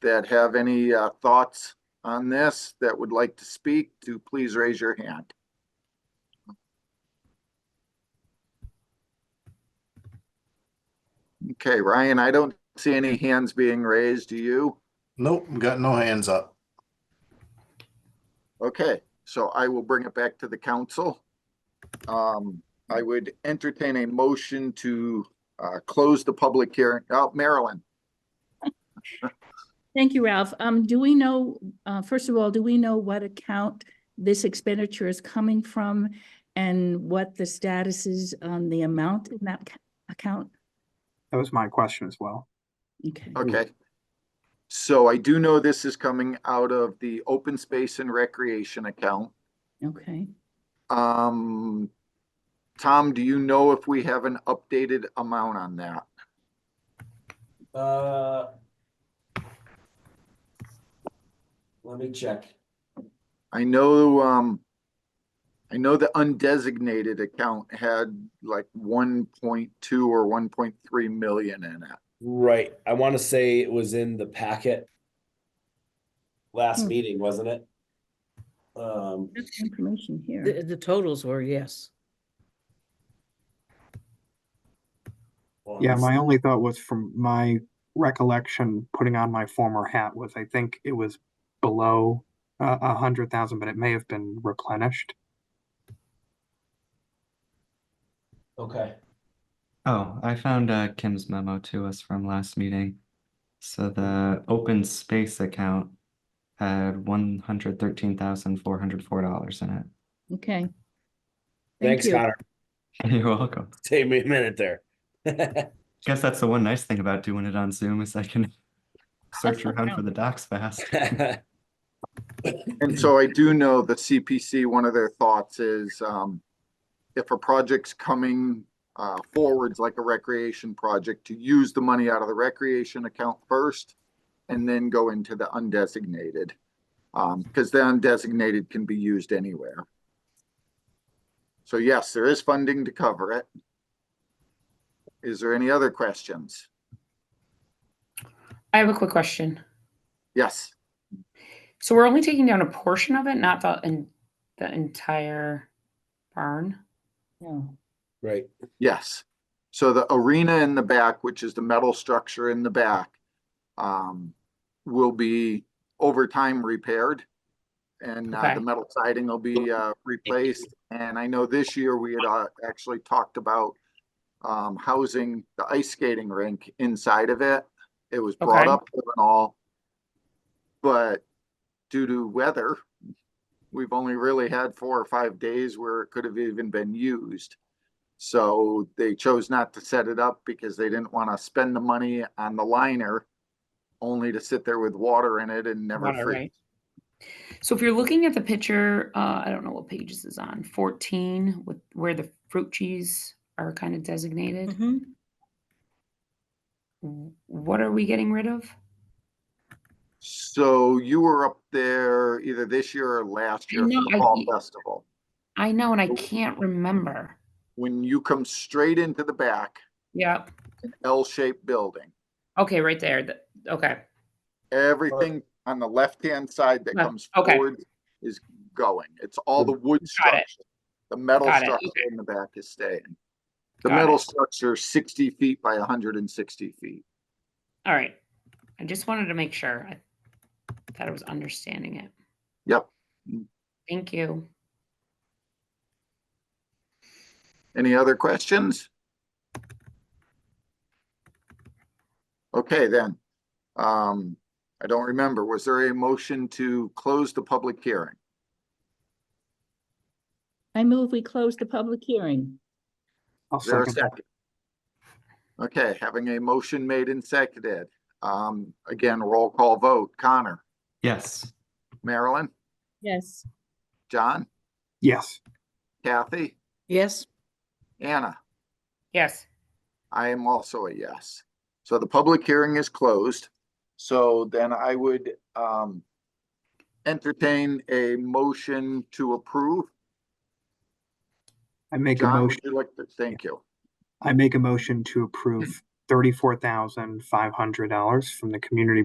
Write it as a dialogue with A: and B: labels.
A: that have any uh, thoughts on this that would like to speak, to please raise your hand. Okay, Ryan, I don't see any hands being raised. Do you?
B: Nope, got no hands up.
A: Okay, so I will bring it back to the council. Um, I would entertain a motion to uh, close the public hearing. Oh, Marilyn,
C: Thank you, Ralph. Um, do we know, uh, first of all, do we know what account this expenditure is coming from? And what the status is on the amount in that ca- account?
D: That was my question as well.
C: Okay,
A: okay. So I do know this is coming out of the open space and recreation account.
C: okay.
A: Um, Tom, do you know if we have an updated amount on that?
E: Uh, Let me check.
A: I know, um, I know the undesignated account had like one point two or one point three million in it.
E: Right, I want to say it was in the packet. Last
C: Hmm.
E: meeting, wasn't it? Um,
C: That's information here.
F: The, the totals were, yes.
E: hold on
D: Yeah,
E: a
D: my only thought was from my recollection, putting on my former hat was I think it was below uh, a hundred thousand, but it may have been replenished.
E: sec. Okay,
G: Oh, I found uh, Kim's memo to us from last meeting. So the open space account had one hundred thirteen thousand four hundred four dollars in it.
C: Okay. Thank
E: thanks,
C: you.
E: Connor.
G: You're welcome.
E: Take me a minute there.
G: Guess that's the one nice thing about doing it on Zoom is I can search around for the docs fast.
A: And so I do know the CPC, one of their thoughts is, um, if a project's coming, uh, forwards like a recreation project, to use the money out of the recreation account first and then go into the undesignated. Um, because the undesignated can be used anywhere. So yes, there is funding to cover it. Is there any other questions?
H: I have a quick question.
A: Yes,
H: So we're only taking down a portion of it, not the en- the entire barn.
C: No.
E: Right,
A: yes. So the arena in the back, which is the metal structure in the back, um, will be over time repaired. And uh,
H: Okay.
A: the metal siding will be uh, replaced. And I know this year we had uh, actually talked about um, housing the ice skating rink inside of it. It was brought
H: Okay.
A: up and all. But due to weather, we've only really had four or five days where it could have even been used. So they chose not to set it up because they didn't want to spend the money on the liner only to sit there with water in it and never
H: Water,
A: freeze.
H: right. So if you're looking at the picture, uh, I don't know what page this is on, 14, with where the fruit trees are kind of designated.
C: Mhm.
H: W- What are we getting rid of?
A: So you were up there either this year or last
H: I
A: year for
H: know,
A: the
H: I-
A: Fall Festival.
H: I know, and I can't remember.
A: When you come straight into the back,
H: Yep.
A: L-shaped building,
H: Okay, right there. The, okay.
A: everything on the left-hand side that
H: Left,
A: comes
H: okay.
A: forward is going. It's all the wood
H: Got it.
A: structure. The metal
H: Got it,
A: structure
H: okay.
A: in the back is staying. The
H: Got
A: metal
H: it.
A: structure, sixty feet by hundred and sixty feet.
H: All right. I just wanted to make sure I that I was understanding it.
A: Yep.
H: Thank you.
A: Any other questions? Okay, then. Um, I don't remember. Was there a motion to close the public hearing?
C: I move we close the public hearing.
D: I'll
A: Is there a
D: second. that.
A: second? Okay, having a motion made and seconded. Um, again, roll call vote. Connor,
G: Yes,
A: Marilyn,
C: Yes.
A: John,
D: Yes,
A: Kathy,
F: Yes,
A: Anna.
H: Yes.
A: I am also a yes. So the public hearing is closed. So then I would um entertain a motion to approve.
D: I make a
A: John, would
D: motion.
A: you like to, thank you.
D: I make a motion to approve thirty-four thousand five hundred dollars from the community